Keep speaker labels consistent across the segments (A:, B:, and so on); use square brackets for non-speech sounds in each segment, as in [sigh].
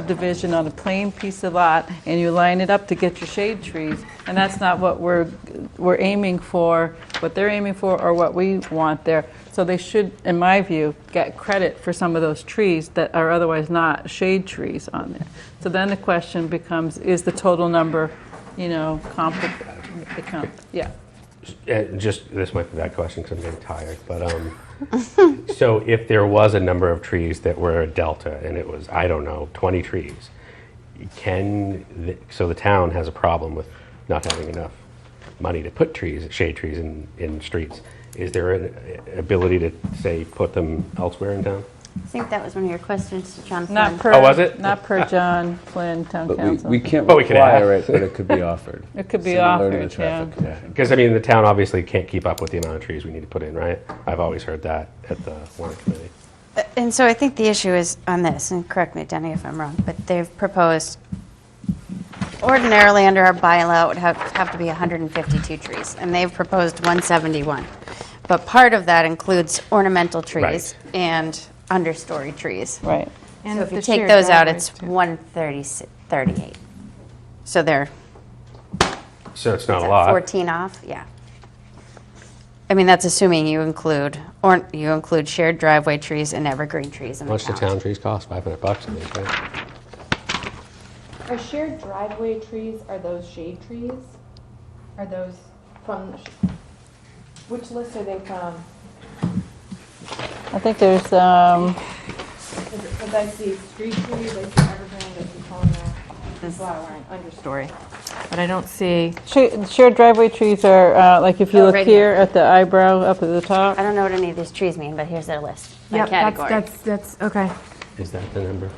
A: subdivision on a plain piece of lot, and you line it up to get your shade trees, and that's not what we're, we're aiming for, what they're aiming for, or what we want there. So they should, in my view, get credit for some of those trees that are otherwise not shade trees on there. So then the question becomes, is the total number, you know, compli- become, yeah.
B: Uh, just this might be a bad question because I'm getting tired, but um, [laughs] so if there was a number of trees that were a delta and it was I don't know 20 trees, can the, so the town has a problem with not having enough money to put trees, shade trees in in streets. Is there an uh, ability to say put them elsewhere in town?
C: I think that was one of your questions to John
A: Not
C: Flynn.
A: per.
B: Oh, was it?
A: Not per John Flynn, Town
D: But we,
A: Council.
D: we can't
B: But we can
D: require it, but it could be offered.
A: [laughs] It could be
D: Similar to the
A: offered,
D: traffic
A: yeah.
D: commission.
B: Because I mean the town obviously can't keep up with the amount of trees we need to put in, right? I've always heard that at the warrant committee.
C: And so I think the issue is on this, and correct me, Denny, if I'm wrong, but they've proposed, ordinarily under our bylaw, it would have, have to be 152 trees, and they've proposed 171. But part of that includes ornamental trees
B: Right.
C: and understory trees.
A: Right.
C: So if you take those out, it's 138. So they're
B: So it's not
C: is
B: a
C: that
B: lot.
C: 14 off, yeah. I mean, that's assuming you include, or you include shared driveway trees and evergreen trees in
B: How
C: the
B: much do
C: town.
B: town trees cost? 500 bucks, I think, right?
E: Are shared driveway trees, are those shade trees? Are those from, the sh- which list are they from?
A: I think there's, um,
E: Because I see street trees, I see evergreen, I see palmer, and flower, and understory. But I don't see.
A: Tree- Shared driveway trees are, uh, like if you
C: Oh,
A: look
C: right
A: here at the eyebrow up at the
C: I
A: top,
C: don't know what any of these trees mean, but here's their list by
E: Yep, that's-
C: category.
E: That's, that's, okay.
B: Is that the number?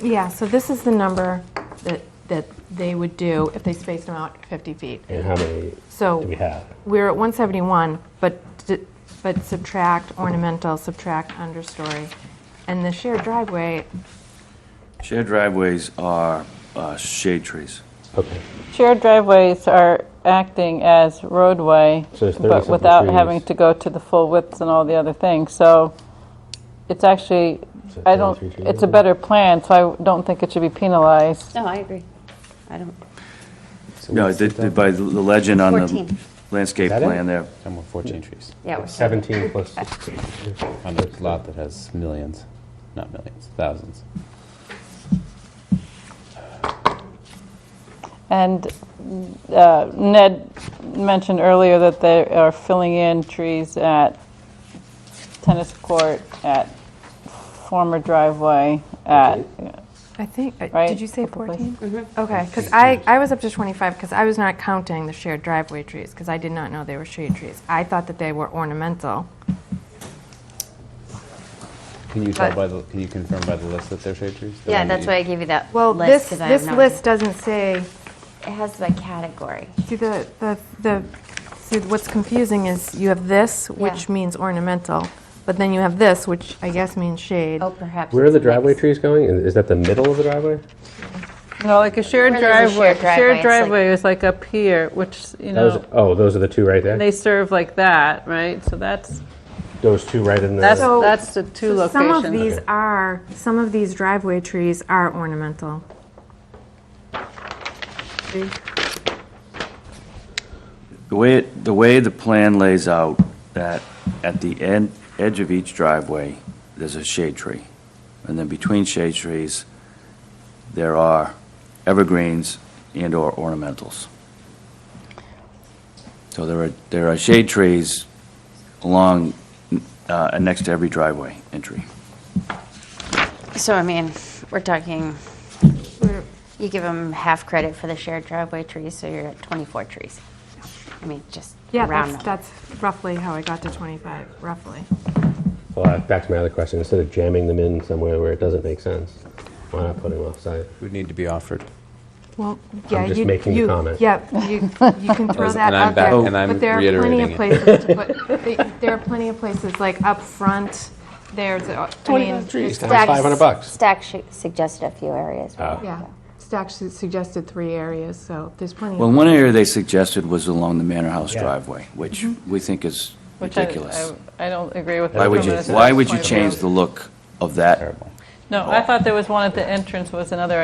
E: Yeah, so this is the number that, that they would do if they spaced them out 50 feet.
B: And how many
E: So.
B: do we have?
E: We're at 171, but, d- but subtract ornamental, subtract understory. And the shared driveway,
F: Shared driveways are uh, shade trees.
B: Okay.
A: shared driveways are acting as roadway,
B: So there's 30
A: but
B: something
A: without having
B: trees.
A: to go to the full widths and all the other things. So it's actually,
B: So
A: I don't,
B: 33 trees
A: it's a
B: there?
A: better plan, so I don't think it should be penalized.
C: No, I agree. I don't,
F: No, the- the- by the legend on the
C: 14.
F: landscape
B: Is that it?
F: plan there,
D: And we're 14 trees
C: yeah, we're-
B: 17 plus
D: on a lot that has millions, not millions, thousands.
A: And uh, Ned mentioned earlier that they are filling in trees at tennis court, at former driveway, at,
E: I think, uh,
A: Right,
E: did you say
A: probably.
E: 14? Okay, because I, I was up to 25, because I was not counting the shared driveway trees, because I did not know they were shade trees. I thought that they were ornamental.
D: Can you tell
E: But-
D: by the, can you confirm by the list that they're shade trees? The
C: yeah,
D: one that
C: that's
D: you-
C: why I gave you that
E: Well, this,
C: list, 'cause I have
E: this
C: no
E: list doesn't say,
C: idea. It has by category.
E: see, the, the, the, see, what's confusing is you have this, which
C: Yeah.
E: means ornamental, but then you have this, which I guess means shade.
C: Oh, perhaps.
B: Where are
C: it's
B: the
C: mixed.
B: driveway trees going? Is is that the middle of the driveway?
A: no, like a shared
C: Where there's a
A: driveway.
C: shared driveway,
A: Shared
C: it's like-
A: driveway is like up here, which, you
B: Those,
A: know,
B: oh, those are the two right there?
A: they serve like that, right? So that's,
B: Those two right in
A: that's,
B: the,
E: So-
A: that's the two
E: So Some of
A: locations.
E: these are, some of these driveway trees are ornamental. See?
F: the way, it- the way the plan lays out, that at the end, edge of each driveway, there's a shade tree. And then between shade trees, there are evergreens and/or ornamentals. So there are, there are shade trees along, uh, next to every driveway entry.
C: So, I mean, we're talking, you give them half credit for the shared driveway trees, so you're at 24 trees. I mean, just
E: Yeah,
C: round number.
E: that's, that's roughly how I got to 25, roughly.
B: well, uh, back to my other question, instead of jamming them in somewhere where it doesn't make sense, why not put them offsite?
D: Would need to be offered.
E: Well, yeah, you...
B: just making the
E: you-
B: comment.
E: Yeah, you, you
B: [laughs]
E: can throw
D: As-
E: that
D: and I'm
E: out there.
D: back- and I'm reiterating it.
E: But there are plenty of places to put, they- there are plenty of places, like up front, there's, uh, I mean...
B: Trees,
C: Stack-
B: times 500 bucks.
C: Stack sh- suggested a few areas.
E: Yeah, Stack su- suggested three areas, so there's plenty of...
F: Well, one area they suggested was along the Manor House
B: Yeah.
F: driveway, which we think is
A: Mm-hmm. which I-
F: ridiculous.
A: I I don't agree with.
F: Why
A: that
F: would
A: from
F: you,
A: an
F: why would you
A: aesthetic point of
F: change
A: view.
F: the look of that
D: Terrible.
A: No, I thought there was one at the entrance was another